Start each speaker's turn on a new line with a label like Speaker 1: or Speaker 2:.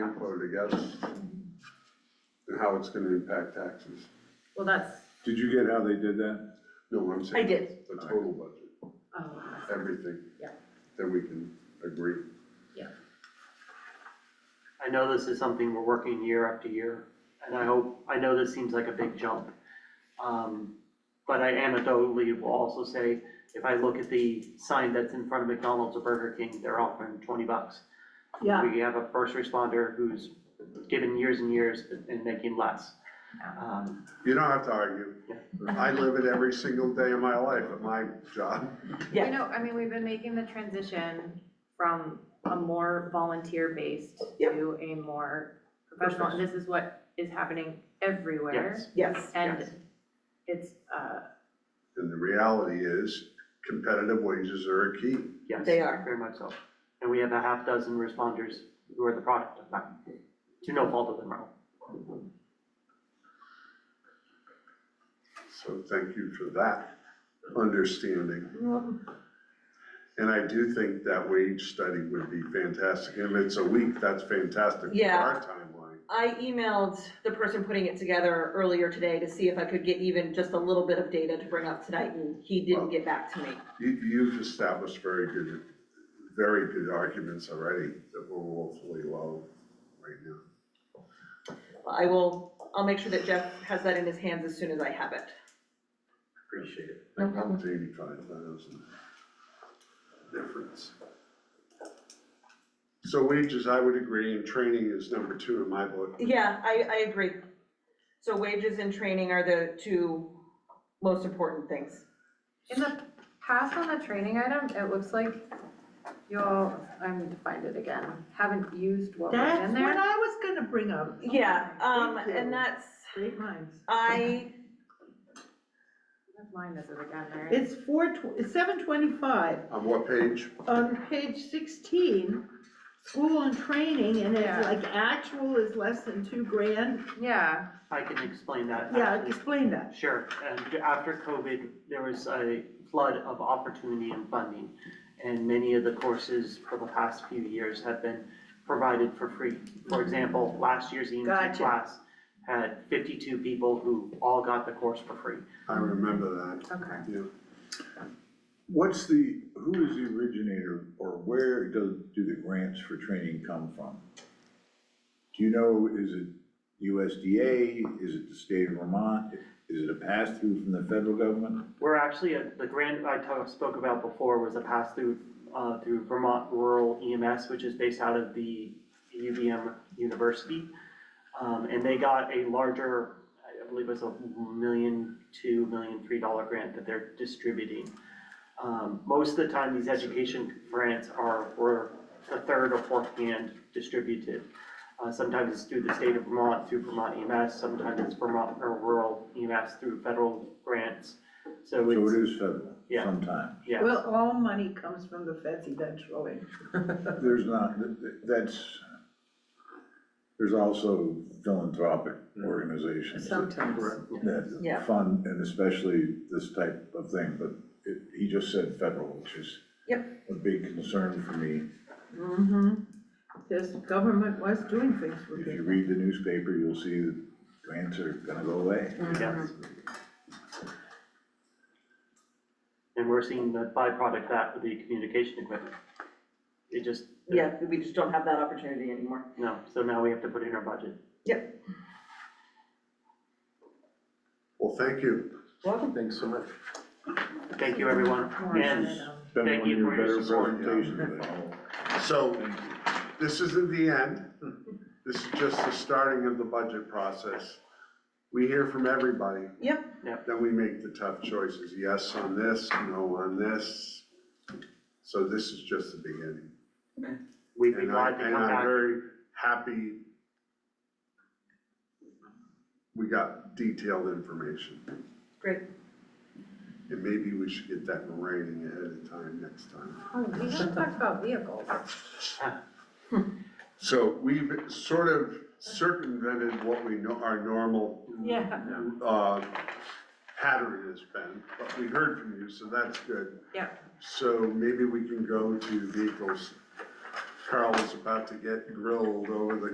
Speaker 1: together and how it's gonna impact taxes.
Speaker 2: Well, that's,
Speaker 3: Did you get how they did that?
Speaker 1: No, I'm saying.
Speaker 2: I did.
Speaker 1: The total budget,
Speaker 2: oh,
Speaker 1: everything.
Speaker 2: Yeah.
Speaker 1: That we can agree.
Speaker 4: I know this is something we're working year after year, and I hope, I know this seems like a big jump. Um, But I anecdotally will also say, if I look at the sign that's in front of McDonald's or Burger King, they're offering twenty bucks.
Speaker 2: yeah,
Speaker 4: We have a first responder who's given years and years and making less. Um,
Speaker 1: You don't have to argue. I live it every single day of my life at my job.
Speaker 2: Yeah.
Speaker 5: You know, I mean, we've been making the transition from a more volunteer-based
Speaker 2: Yep.
Speaker 5: to a more professional, and this is what is happening everywhere.
Speaker 4: Yes,
Speaker 2: yes,
Speaker 5: And
Speaker 4: yes.
Speaker 5: it's, uh,
Speaker 1: And the reality is competitive wages are a key.
Speaker 4: yes.
Speaker 2: They are.
Speaker 4: Very much so. And we have a half dozen responders who are the product of that, to no fault of their own.
Speaker 1: So thank you for that understanding. And I do think that wage study would be fantastic. If it's a week, that's fantastic for
Speaker 2: Yeah.
Speaker 1: our timeline.
Speaker 2: I emailed the person putting it together earlier today to see if I could get even just a little bit of data to bring up tonight, and he didn't get back to me.
Speaker 1: You, you've established very good, very good arguments already that were woefully low right now.
Speaker 2: I will, I'll make sure that Jeff has that in his hands as soon as I have it.
Speaker 1: Appreciate it.
Speaker 2: No problem.
Speaker 1: It's eighty-five thousand difference. So wages, I would agree, and training is number two in my book.
Speaker 2: Yeah, I, I agree. So wages and training are the two most important things.
Speaker 5: in the past on the training item, it looks like y'all, I need to find it again, haven't used what was
Speaker 6: That's
Speaker 5: in
Speaker 6: what
Speaker 5: there.
Speaker 6: I was gonna bring up,
Speaker 2: Yeah, um,
Speaker 6: Thank you.
Speaker 2: and that's,
Speaker 6: great minds.
Speaker 2: I,
Speaker 5: Mine is it again, there.
Speaker 6: It's four, tw- it's seven twenty-five,
Speaker 1: On what page?
Speaker 6: on page sixteen, school and training, and
Speaker 5: Yeah.
Speaker 6: it's like actual is less than two grand.
Speaker 5: Yeah,
Speaker 4: I can explain that.
Speaker 6: Yeah,
Speaker 4: actually.
Speaker 6: explain that.
Speaker 4: Sure, and after COVID, there was a flood of opportunity and funding. And many of the courses for the past few years have been provided for free. For example, last year's EMT
Speaker 6: Gotcha.
Speaker 4: class had fifty-two people who all got the course for free.
Speaker 1: I remember
Speaker 5: okay.
Speaker 1: that, yeah.
Speaker 3: What's the, who is the originator or where do, do the grants for training come from? Do you know, is it USDA? Is it the state of Vermont? Is it a pass-through from the federal government?
Speaker 4: We're actually, at the grant I ta- spoke about before was a pass-through uh, through Vermont Rural EMS, which is based out of the UVM University. Um, And they got a larger, I believe it was a million, two million, three dollar grant that they're distributing. Um, Most of the time, these education grants are, were the third or fourth hand distributed. Uh, Sometimes it's through the state of Vermont, through Vermont EMS, sometimes it's Vermont or Rural EMS through federal grants. So
Speaker 3: So
Speaker 4: it's,
Speaker 3: it is federal
Speaker 4: Yeah.
Speaker 3: sometime.
Speaker 4: yeah.
Speaker 6: Well, all money comes from the feds eventually.
Speaker 3: There's not, th- th- that's, there's also philanthropic organizations. that-
Speaker 6: Sometimes.
Speaker 2: Yeah.
Speaker 3: that fund, and especially this type of thing, but it, he just said federal, which is a big concern for me.
Speaker 6: Mm-hmm. This government was doing things with
Speaker 3: If you
Speaker 6: it.
Speaker 3: read the newspaper, you'll see that grants are gonna go away.
Speaker 4: Yes. And we're seeing the byproduct of that with the communication equipment. It just,
Speaker 2: yeah, we just don't have that opportunity anymore.
Speaker 4: no, so now we have to put it in our budget.
Speaker 1: Well, thank you.
Speaker 2: Welcome.
Speaker 1: Thanks so much.
Speaker 4: Thank you, everyone. And
Speaker 3: Been one
Speaker 4: Thank
Speaker 3: of
Speaker 4: you
Speaker 3: your
Speaker 4: for your
Speaker 3: better
Speaker 4: support.
Speaker 3: presentations of the whole-
Speaker 1: So, this isn't the end. This is just the starting of the budget process. We hear from everybody.
Speaker 2: Yep.
Speaker 4: Yep.
Speaker 1: Then we make the tough choices, yes on this, no on this. So this is just the beginning.
Speaker 4: we'd be
Speaker 1: And I,
Speaker 4: glad to
Speaker 1: and
Speaker 4: come
Speaker 1: I'm
Speaker 4: back.
Speaker 1: very happy we got detailed information.
Speaker 2: Great.
Speaker 1: And maybe we should get that in writing ahead of time next time.
Speaker 5: Oh, we haven't talked about vehicles.
Speaker 1: So we've sort of circumvented what we know our normal,
Speaker 5: Yeah.
Speaker 1: uh, pattern has been, but we heard from you, so that's good.
Speaker 5: Yeah.
Speaker 1: So maybe we can go to vehicles. Carl was about to get grilled over the